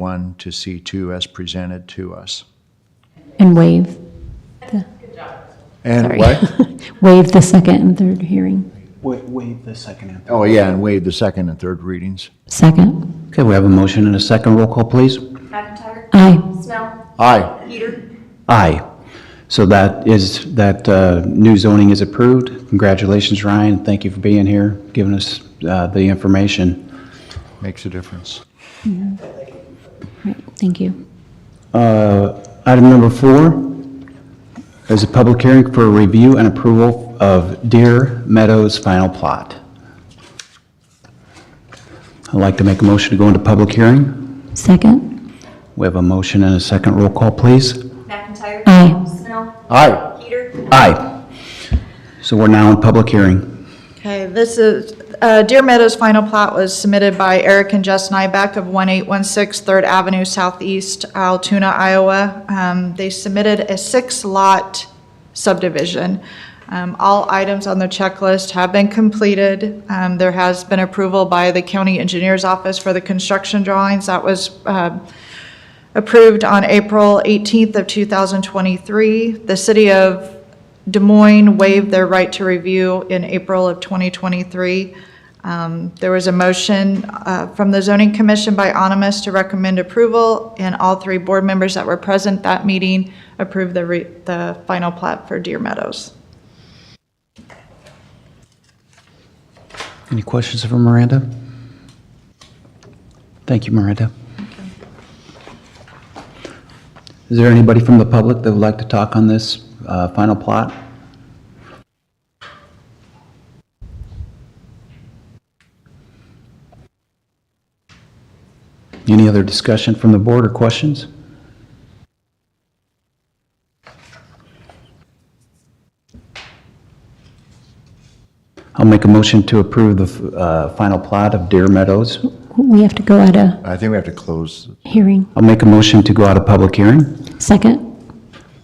one to C2 as presented to us. And waive, And sorry. what? Waive the second and third hearing. Wa- Waive the second and third. Oh, yeah, and waive the second and third readings. Second. Okay, we have a motion and a second. Roll call, please. McIntyre. Aye. Snell. Aye. Peter. Aye. So that is, that uh, new zoning is approved. Congratulations, Ryan. Thank you for being here, giving us uh, the information. Makes a difference. Right, Thank you. Uh, Item number four is a public hearing for review and approval of Deer Meadows final plot. I'd like to make a motion to go into public hearing. Second. We have a motion and a second. Roll call, please. McIntyre. Aye. Snell. Aye. Peter. Aye. So we're now in public hearing. Okay, this is, uh, Deer Meadows final plot was submitted by Eric and Jess Nybeck of 1816 Third Avenue Southeast, Altoona, Iowa. Um, They submitted a six-lot subdivision. Um, All items on the checklist have been completed. Um, There has been approval by the county engineer's office for the construction drawings. That was um, approved on April 18th of 2023. The city of Des Moines waived their right to review in April of 2023. Um, There was a motion uh, from the zoning commission by Onomus to recommend approval, and all three board members that were present that meeting approved the, re- the final plat for Deer Meadows. Any questions for Miranda? Thank you, Miranda. Is there anybody from the public that would like to talk on this uh, final plot? Any other discussion from the board or questions? I'll make a motion to approve the uh, final plot of Deer Meadows. We have to go at a I think we have to close. hearing. I'll make a motion to go out of public hearing. Second.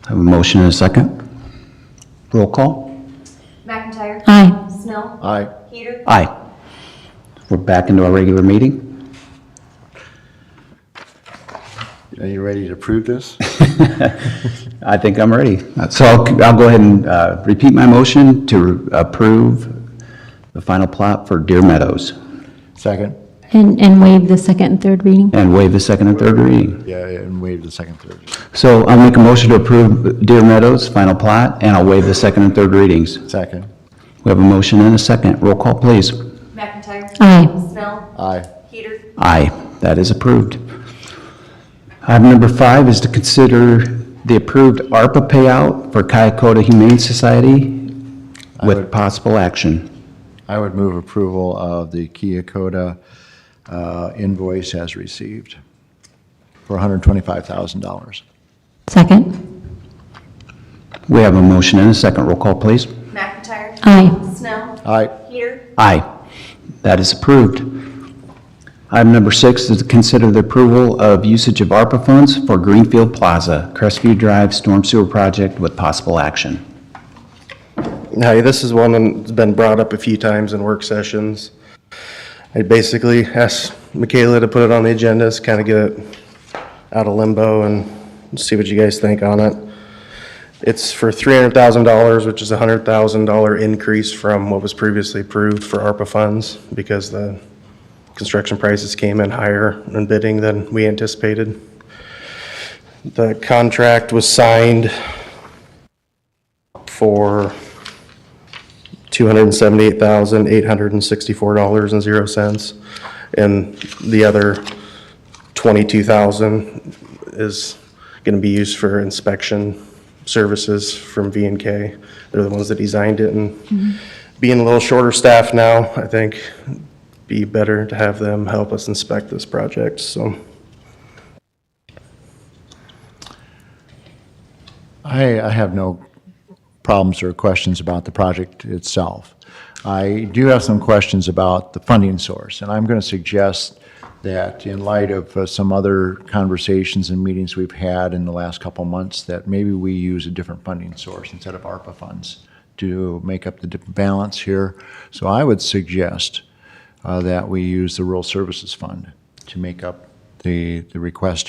I Have a motion and a second. Roll call? McIntyre. Aye. Snell. Aye. Peter. Aye. We're back into our regular meeting. Are you ready to approve this? I think I'm ready. So I'll, I'll go ahead and uh, repeat my motion to approve the final plot for Deer Meadows Second? And, and waive the second and third reading. and waive the second and third reading. Yeah, and waive the second, third. So I'll make a motion to approve Deer Meadows' final plot, and I'll waive the second and third readings. Second? We have a motion and a second. Roll call, please. McIntyre. Aye. Snell. Aye. Peter. Aye, that is approved. Item number five is to consider the approved ARPA payout for Kyakota Humane Society with possible action. I would move approval of the Kia Koda, uh invoice as received for $125,000. Second. We have a motion and a second. Roll call, please. McIntyre. Aye. Snell. Aye. Peter. Aye, that is approved. Item number six is to consider the approval of usage of ARPA funds for Greenfield Plaza, Crestview Drive Storm Sewer Project with possible action. Hi, this is one that's been brought up a few times in work sessions. I basically asked Michaela to put it on the agenda, just kind of get it out of limbo and see what you guys think on it. It's for $300,000, which is a $100,000 increase from what was previously approved for ARPA funds because the construction prices came in higher in bidding than we anticipated. The contract was signed for $278,864.00. And the other $22,000 is going to be used for inspection services from v and K. They're the ones that designed it, and being a little shorter staffed now, I think be better to have them help us inspect this project, so. I, I have no problems or questions about the project itself. I do have some questions about the funding source, and I'm going to suggest that in light of uh, some other conversations and meetings we've had in the last couple months, that maybe we use a different funding source instead of ARPA funds to make up the di- balance here. So I would suggest uh, that we use the Rural Services Fund to make up the the, the request